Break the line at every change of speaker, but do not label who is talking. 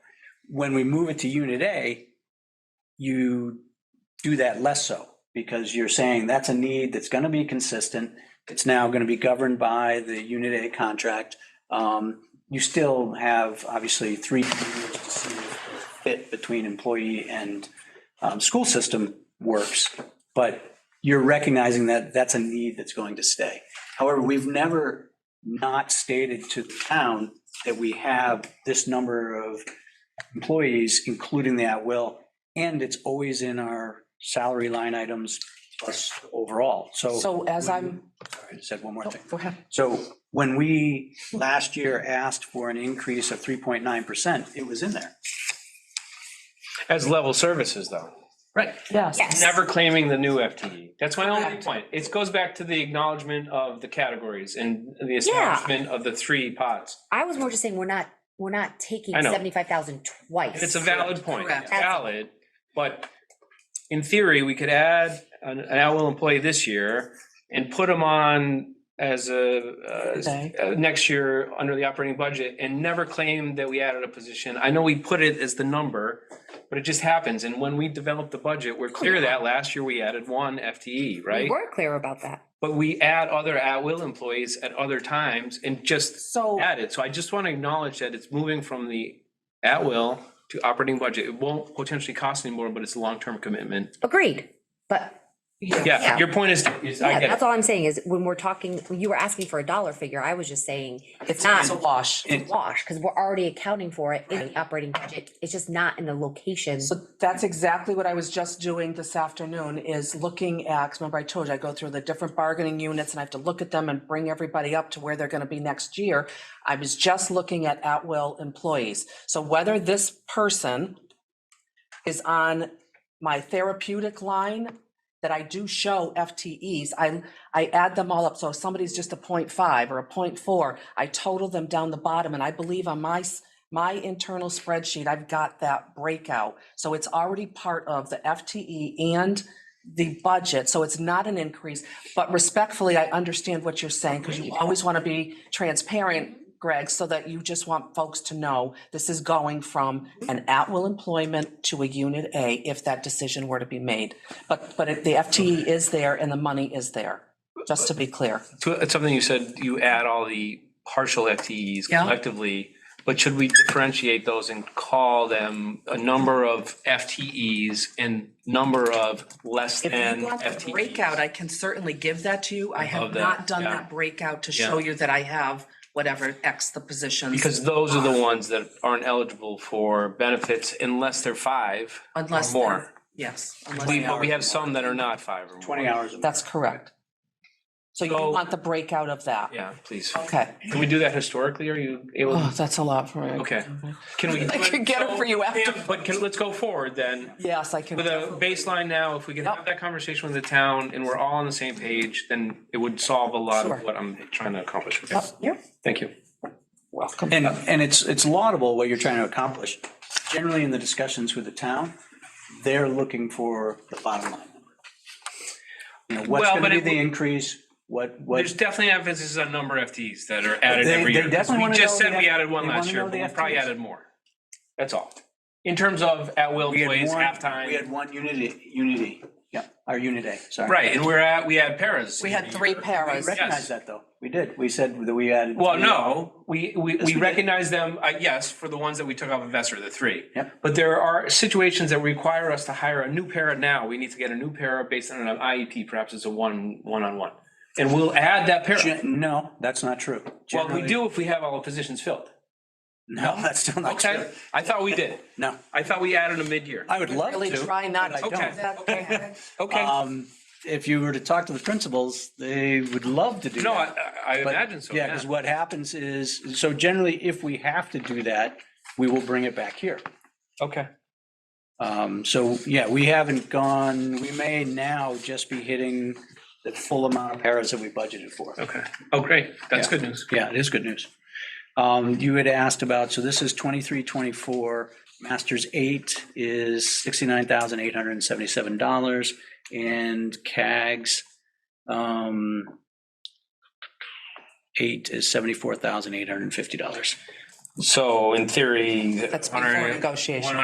When we move it to unit A, you do that less so because you're saying that's a need that's going to be consistent. It's now going to be governed by the unit A contract. Um, You still have obviously three years to see if the fit between employee and um, school system works, but you're recognizing that that's a need that's going to stay. However, we've never not stated to the town that we have this number of employees, including the at-will, and it's always in our salary line items plus overall. So
So as I'm,
I said one more
oh,
thing.
go ahead.
So when we last year asked for an increase of 3.9%, it was in there.
As level services, though. Right.
Yes.
Yes.
Never claiming the new FTE. That's my only point. It goes back to the acknowledgement of the categories and the establishment of the three pots.
I was more just saying, we're not, we're not taking
I know.
seventy-five thousand twice.
And it's a valid point,
Correct.
valid, but in theory, we could add an, an at-will employee this year and put them on as a,
Okay.
uh, uh, next year under the operating budget and never claim that we added a position. I know we put it as the number, but it just happens. And when we develop the budget, we're clear that last year we added one FTE,
We
right?
were clear about that.
But we add other at-will employees at other times and just
So,
added. So I just want to acknowledge that it's moving from the at will to operating budget. It won't potentially cost any more, but it's a long-term commitment.
Agreed. But
Yeah,
Yeah.
your point is, is I
yeah,
get
that's
it.
all I'm saying is when we're talking, when you were asking for a dollar figure, I was just saying it's not
it's a wash.
a wash because we're already accounting for it in the operating budget. It's just not in the location.
So that's exactly what I was just doing this afternoon is looking at, 'cause remember I told you, I go through the different bargaining units and I have to look at them and bring everybody up to where they're gonna be next year. I was just looking at at-will employees. So whether this person is on my therapeutic line that I do show FTEs, I, I add them all up. So if somebody's just a point five or a point four, I total them down the bottom and I believe on my s- my internal spreadsheet, I've got that breakout. So it's already part of the FTE and the budget. So it's not an increase. But respectfully, I understand what you're saying because you always want to be transparent, Greg, so that you just want folks to know this is going from an at-will employment to a unit A if that decision were to be made. But, but it- the FTE is there and the money is there, just to be clear.
So It's something you said, you add all the partial FTEs
Yeah.
collectively, but should we differentiate those and call them a number of FTEs and number of less
If
than
you want the
FTEs?
breakout, I can certainly give that to you. I have
Above E that,
not done
yeah.
that breakout to show you that I have whatever X the positions,
Because those are the ones that aren't eligible for benefits unless they're five or
unless.
more.
they're- Yes. unless
We,
they
but we
are.
have some that are not five or more.
20 hours. a month.
That's correct. So you
So-
want the breakout of that?
Yeah, please.
Okay.
Can we do that historically? Are you able?
Oh,
to
that's a lot for me.
Okay. Can we?
I could get it for you after.
Yeah, But can, let's go forward then.
Yes, I can.
With a baseline now, if we can have that conversation with the town and we're all on the same page, then it would solve a lot
Sure.
of what I'm trying to accomplish. Okay.
Yeah,
Thank you.
welcome.
And, and it's, it's laudable what you're trying to accomplish. Generally, in the discussions with the town, they're looking for the bottom line. You know, what's
Well,
going to
but
be
it-
the increase, what, what,
There's definitely emphasis on number of FTEs that are added
They- they
every year. 'cause
definitely wanna
We just
know
said
the
we
F-
added one
they
last
wanna
year,
know
but we
the
probably
FTEs.
added more. That's all. In terms of at-will
we had
employees,
one, we
halftime,
had one unity, unity, yeah, our unit A, sorry.
right, and we're at, we had paras.
We had three
We
paras.
recognized that, though. We did. We said that we added.
Well, no, we, we,
we
we
did.
recognize them, uh, yes, for the ones that we took off of Vesser, the three.
Yep.
But there are situations that require us to hire a new para now. We need to get a new para based on an IEP, perhaps it's a one, one-on-one. And we'll add that para.
Gen- No, that's not true.
Well, we
Generally-
do if we have all the positions filled.
No, that's still not true.
Okay, I thought we did.
No,
I thought we added a mid-year.
I would love
Really
to.
try not to.
but I
Okay.
don't.
Okay.
Okay,
Um, if you were to talk to the principals, they would love to do
no,
that.
I, I
But-
imagine so,
Yeah,
yeah.
because what happens is, so generally, if we have to do that, we will bring it back here.
Okay,
Um, So, yeah, we haven't gone, we may now just be hitting the full amount of paras that we budgeted for.
okay. Oh, great, that's
Yeah.
good news.
Yeah, it is good news. Um, You had asked about, so this is 23, 24, masters eight is $69,877, and CAGs um, eight is $74,850.
So in theory.
That's before negotiation.